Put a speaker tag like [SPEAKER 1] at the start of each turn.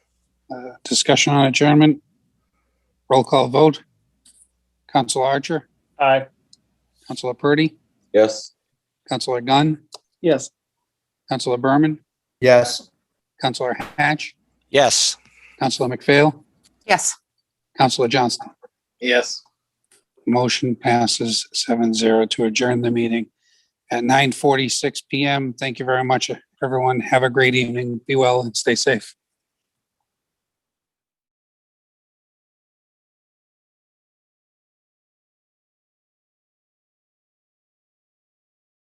[SPEAKER 1] Uh, Discussion on adjournment. Roll call vote. Council Archer,
[SPEAKER 2] Aye.
[SPEAKER 1] Councilor Purdy,
[SPEAKER 3] Yes.
[SPEAKER 1] Councilor Gunn,
[SPEAKER 2] Yes.
[SPEAKER 1] Councilor Berman,
[SPEAKER 4] Yes.
[SPEAKER 1] Councilor Hatch,
[SPEAKER 5] Yes.
[SPEAKER 1] Councilor McPhail,
[SPEAKER 6] Yes.
[SPEAKER 1] Councilor Johnston.
[SPEAKER 3] Yes.
[SPEAKER 1] Motion passes seven zero to adjourn the meeting at nine forty-six PM. Thank you very much, everyone. Have a great evening. Be well and stay safe.